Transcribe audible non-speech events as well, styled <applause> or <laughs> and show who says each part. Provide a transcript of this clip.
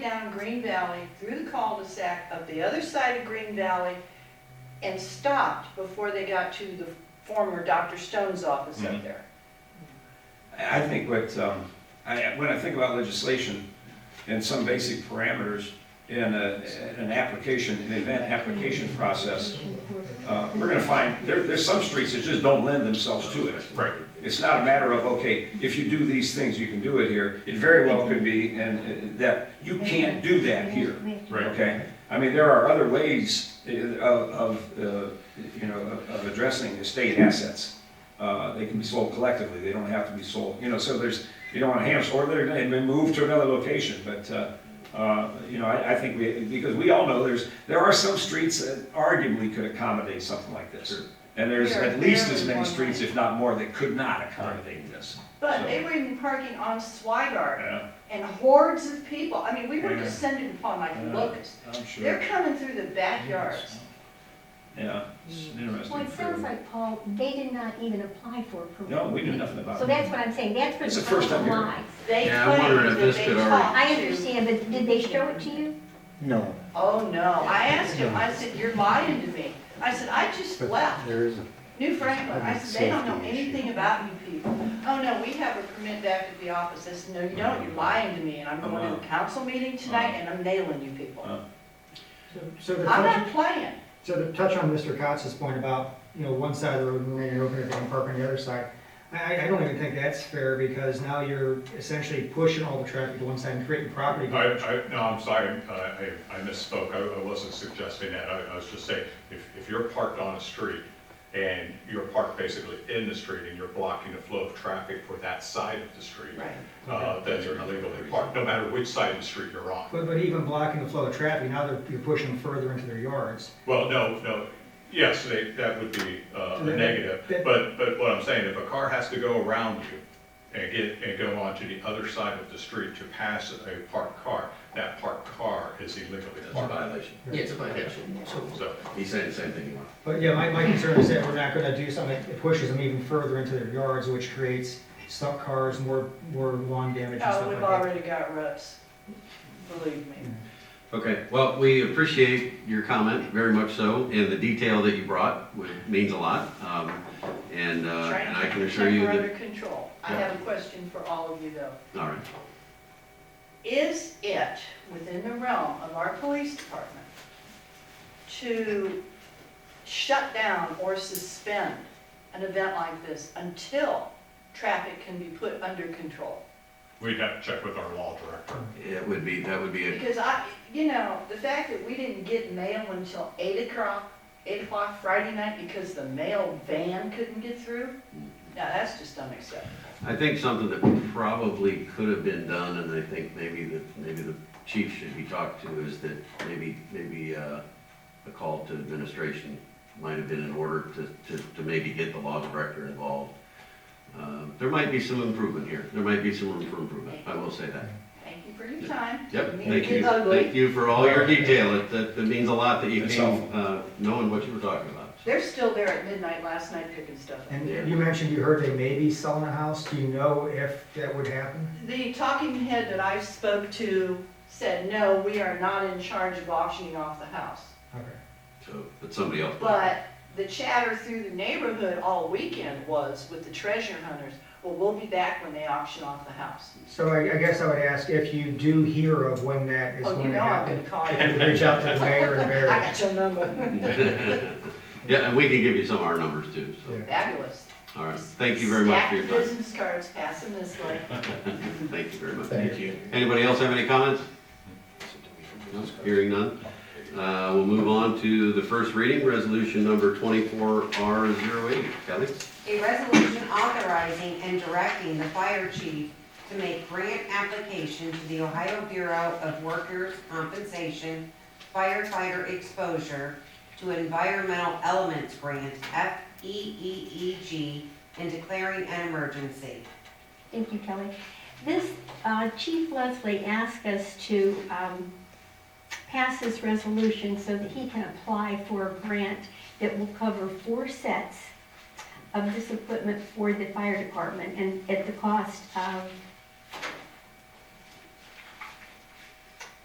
Speaker 1: down Green Valley, through the cul-de-sac, up the other side of Green Valley, and stopped before they got to the former Dr. Stone's office up
Speaker 2: Mm-hmm.
Speaker 3: Mhm.
Speaker 1: there.
Speaker 2: I I think what, um, I, when I think about legislation and some basic parameters in a, in an application, an event application process, uh, we're gonna find, there, there's some streets that just don't lend themselves to it.
Speaker 3: Right.
Speaker 2: It's not a matter of, okay, if you do these things, you can do it here. It very well could be, and uh, that, you can't do that here.
Speaker 3: Right.
Speaker 2: Okay, I mean, there are other ways uh, of, of, uh, you know, of- of addressing estate assets. Uh, They can be sold collectively, they don't have to be sold, you know, so there's, you don't want hams, or they're gonna be moved to another location, but, uh, uh, you know, I, I think we, because we all know there's, there are some streets that arguably could accommodate something like this.
Speaker 3: Sure.
Speaker 2: And there's
Speaker 1: There are
Speaker 2: at least as
Speaker 1: barely
Speaker 2: many
Speaker 1: more
Speaker 2: streets,
Speaker 1: lines.
Speaker 2: if not more, that could not accommodate this.
Speaker 1: But
Speaker 2: So-
Speaker 1: they were even parking on Swigart,
Speaker 2: Yeah,
Speaker 1: and hordes of people, I mean, we were
Speaker 2: Yeah.
Speaker 1: descended upon like
Speaker 2: Yeah.
Speaker 1: locusts.
Speaker 2: I'm
Speaker 1: They're
Speaker 2: sure,
Speaker 1: coming through the backyards.
Speaker 2: yeah, it's interesting.
Speaker 4: Mm. Well, it sounds like, Paul, they did not even apply for
Speaker 2: No,
Speaker 4: approval.
Speaker 2: we knew nothing about it.
Speaker 4: So that's what I'm saying, that's where
Speaker 2: It's
Speaker 4: the
Speaker 2: the first
Speaker 4: problem
Speaker 2: time
Speaker 4: lies.
Speaker 1: They
Speaker 5: Yeah, I'm wondering
Speaker 1: claimed
Speaker 5: if
Speaker 1: that
Speaker 5: this
Speaker 1: they
Speaker 5: could already-
Speaker 1: talked
Speaker 4: I
Speaker 1: to.
Speaker 4: understand, but did they show it to you?
Speaker 6: No.
Speaker 1: Oh, no, I asked him, I said, you're lying to me. I said, I just
Speaker 6: but
Speaker 1: left.
Speaker 6: There is a
Speaker 1: New Franklin, I said, they don't know
Speaker 6: Safety issue.
Speaker 1: anything about you people. Oh, no, we have a permit back at the office. I said, no, you don't, you're lying to me, and I'm going to the council meeting
Speaker 5: Uh-huh.
Speaker 1: tonight, and I'm nailing you people.
Speaker 2: Uh.
Speaker 7: So to
Speaker 1: I'm
Speaker 7: touch,
Speaker 1: not playing.
Speaker 7: so to touch on Mr. Cox's point about, you know, one side of the road moving and opening it and parking the other side, I, I- I don't even think that's fair because now you're essentially pushing all the traffic to one side and creating property.
Speaker 3: I, I, no, I'm sorry, uh, I, I misspoke, I, I wasn't suggesting that, I, I was just saying, if, if you're parked on a street and you're parked basically in the street and you're blocking the flow of traffic for that side of the street, uh, then you're illegally parked, no matter which side of the street you're on.
Speaker 7: But, but even blocking the flow of traffic, now they're, you're pushing them further into their yards.
Speaker 3: Well, no, no, yes, they, that would be uh, a
Speaker 7: Then-
Speaker 3: negative,
Speaker 7: then-
Speaker 3: but, but what I'm saying, if a car has to go around you and get, and go onto the other side of the street to pass a parked car, that parked car is illegally
Speaker 5: It's a
Speaker 3: parked.
Speaker 5: violation. Yeah, it's a violation. So
Speaker 3: So,
Speaker 5: he's saying the same thing.
Speaker 7: But yeah, my, my concern is that we're not gonna do something that pushes them even further into their yards, which creates stuck cars, more, more lawn damage
Speaker 1: Oh,
Speaker 7: and stuff
Speaker 1: we've
Speaker 7: like that.
Speaker 1: already got roofs, believe me.
Speaker 5: Okay, well, we appreciate your comment very much so, and the detail that you brought which means a lot. Um, And, uh,
Speaker 1: Trying
Speaker 5: and
Speaker 1: to
Speaker 5: I
Speaker 1: keep
Speaker 5: can
Speaker 1: the
Speaker 5: assure you
Speaker 1: temper under
Speaker 5: that,
Speaker 1: control. I
Speaker 5: Yeah.
Speaker 1: have a question for all of you, though.
Speaker 5: all right.
Speaker 1: Is it within the realm of our police department to shut down or suspend an event like this until traffic can be put under control?
Speaker 3: we'd have to check with our law director.
Speaker 5: It would be, that would be a
Speaker 1: Because I, you know, the fact that we didn't get mail until eight o'clock, eight o'clock Friday night because the mail van couldn't get through, now that's just unacceptable.
Speaker 5: I think something that probably could have been done, and I think maybe that, maybe the chief should be talked to, is that maybe, maybe, uh, a call to administration might have been in order to, to, to maybe get the law director involved. Um, there might be some improvement here, there might be some room for improvement, I will say that.
Speaker 1: Thank you for your time.
Speaker 5: Yep,
Speaker 1: It
Speaker 5: thank you,
Speaker 1: gets ugly.
Speaker 5: thank you for all your detail, it, that, that means a lot that you
Speaker 2: It's
Speaker 5: came,
Speaker 2: helpful.
Speaker 5: uh, knowing what you were talking about.
Speaker 1: They're still there at midnight last night picking stuff up.
Speaker 7: And you mentioned you heard they may be selling a house, do you know if that would happen?
Speaker 1: The talking head that I spoke to said, no, we are not in charge of auctioning off the house.
Speaker 7: Okay.
Speaker 5: So, but somebody else.
Speaker 1: But the chatter through the neighborhood all weekend was with the treasure hunters, well, we'll be back when they auction off the house.
Speaker 7: So I, I guess I would ask if you do hear of when that is
Speaker 1: Oh, you
Speaker 7: going to
Speaker 1: know I'm gonna
Speaker 7: happen.
Speaker 1: call
Speaker 7: If
Speaker 1: you.
Speaker 7: you reach out to the mayor
Speaker 1: <laughs>
Speaker 7: and
Speaker 1: I
Speaker 7: mayor.
Speaker 1: got your number.
Speaker 5: <laughs> Yeah, and we can give you some of our numbers too, so,
Speaker 7: Yeah.
Speaker 1: Fabulous.
Speaker 5: all right, thank you very much for your
Speaker 1: Stack
Speaker 5: time.
Speaker 1: business cards, pass them this way.
Speaker 5: Thank you very much.
Speaker 6: Thank
Speaker 5: you. Anybody else have any comments? No? Hearing none. Uh, We'll move on to the first reading, resolution number 24R08. Kelly?
Speaker 8: A resolution authorizing and directing the fire chief to make grant application to the Ohio Bureau of Workers' Compensation firefighter exposure to environmental elements grant, E FEEEG, and declaring an emergency.
Speaker 4: Thank you, Kelly. This, uh, Chief Leslie asked us to um, pass this resolution so that he can apply for a grant that will cover four sets of this equipment for the fire department and at the cost of